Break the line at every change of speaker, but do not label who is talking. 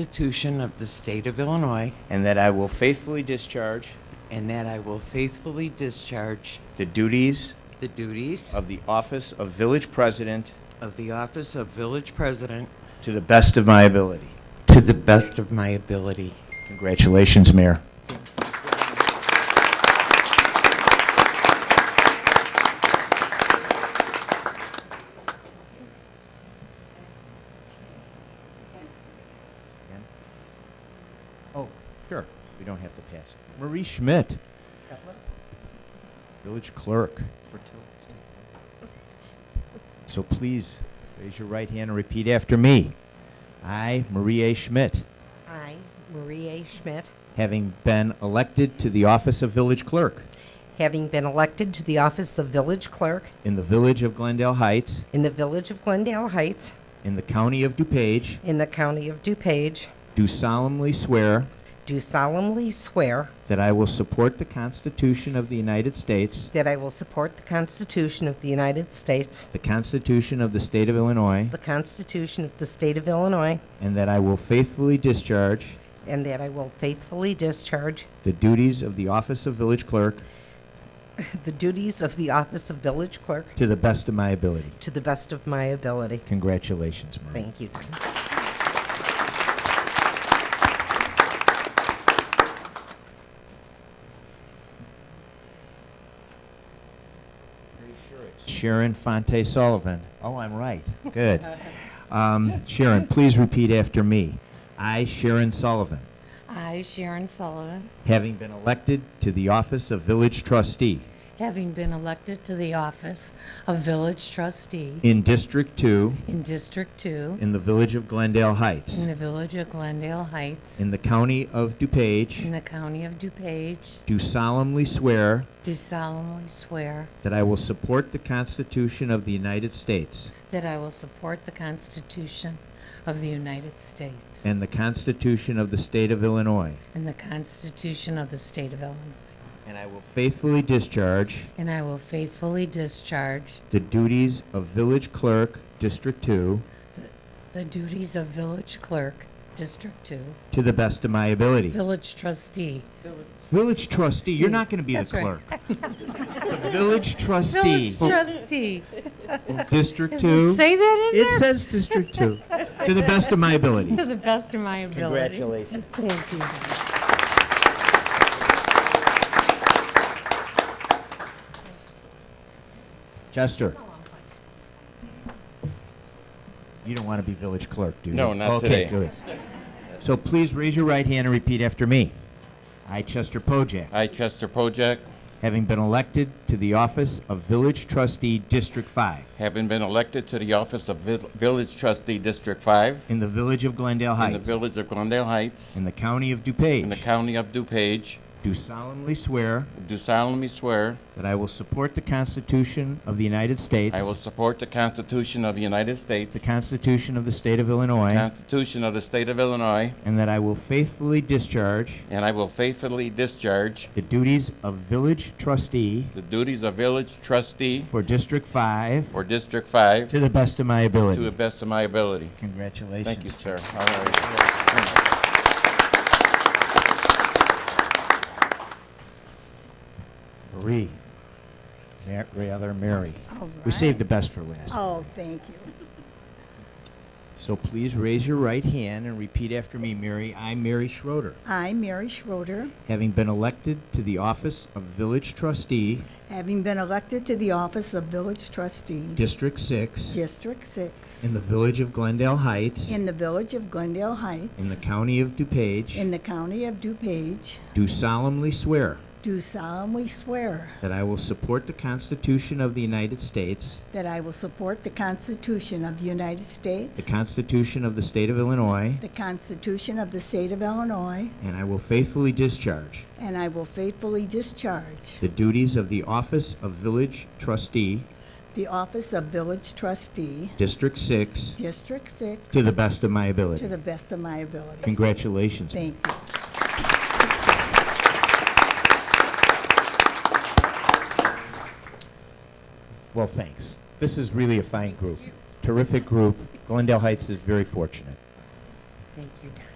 Constitution of the State of Illinois,
and that I will faithfully discharge
and that I will faithfully discharge
the duties
the duties
of the office of village president
of the office of Village President
to the best of my ability.
to the best of my ability.
Congratulations, Mayor. Oh, sure. We don't have to pass it. Marie Schmidt, village clerk. So please, raise your right hand and repeat after me. I, Marie A. Schmidt,
I, Marie A. Schmidt,
having been elected to the office of village clerk
having been elected to the office of village clerk
in the village of Glendale Heights,
in the village of Glendale Heights,
in the county of DuPage,
in the county of DuPage,
do solemnly swear
do solemnly swear
that I will support the Constitution of the United States,
that I will support the Constitution of the United States,
the Constitution of the state of Illinois,
the Constitution of the State of Illinois,
and that I will faithfully discharge
and that I will faithfully discharge
the duties of the office of village clerk
the duties of the office of village clerk
to the best of my ability.
to the best of my ability.
Congratulations, Marie.
Thank you. Tom.
Sharon Fonte Sullivan. Oh, I'm right. Good. Um, Sharon, please repeat after me. I, Sharon Sullivan,
I, Sharon Sullivan,
having been elected to the office of village trustee
having been elected to the office of village trustee
in District 2
in District 2
in the village of Glendale Heights,
in the village of Glendale Heights
in the county of
in
DuPage,
the county of DuPage,
do solemnly swear
do solemnly swear
that I will support the Constitution of the United States
that I will support the Constitution of the United States
and the Constitution of the State of Illinois,
and the Constitution of the State of Illinois,
and I will faithfully discharge
and I will faithfully discharge
the duties of village clerk, District 2,
the duties of village clerk, District 2,
To the best of my ability.
village trustee,
Village trustee, you're not going to be the
That's right.
clerk. The village trustee,
village trustee.
District
Does it
Two.
say that in
It
there?
says District Two. To the best of my ability.
To the best of my ability. Thank you.
Chester. You don't want to be village clerk, do you?
No, not
Okay,
today.
good. So please raise your right hand and repeat after me. I, Chester Pojek,
I, Chester Pojek,
having been elected to the office of village trustee, District Five,
having been elected to the office of Vil- Village Trustee District 5
in the village of Glendale
in the
Heights,
village of Glendale Heights
in the county of
in the
DuPage,
county of DuPage,
do solemnly swear
do solemnly swear
That I will support the Constitution of the United States.
I will support the Constitution of the United States,
The Constitution of the State of Illinois.
the Constitution of the State of Illinois,
And that I will faithfully discharge
and I will faithfully discharge
the duties of village trustee
the duties of Village Trustee
for District 5
for District 5
to the best of my
to the
ability.
best of my ability.
Congratulations.
Thank you, sir. All right.
Marie. Mar- Rather, Mary. We saved the best for last.
Oh, thank you.
So please raise your right hand and repeat after me, Mary. I, Mary Schroeder,
I, Mary Schroeder,
having been elected to the office of village trustee,
having been elected to the office of Village Trustee,
District 6,
District 6,
in the village of Glendale Heights.
in the village of Glendale
In
Heights,
the county of DuPage,
in the county of DuPage,
do solemnly swear
do solemnly swear
that I will support the Constitution of the United States,
that I will support the Constitution of the United
the
States,
Constitution of the State of Illinois,
the Constitution of the State of Illinois,
and I will faithfully discharge
and I will faithfully discharge
the duties of the Office of Village Trustee,
the office of Village Trustee,
District 6,
District 6,
to the best of my
to
ability.
the best of my ability.
Congratulations.
Thank you.
Well, thanks. This is really a fine group, terrific group. Glendale Heights is very fortunate.
Thank you, Don.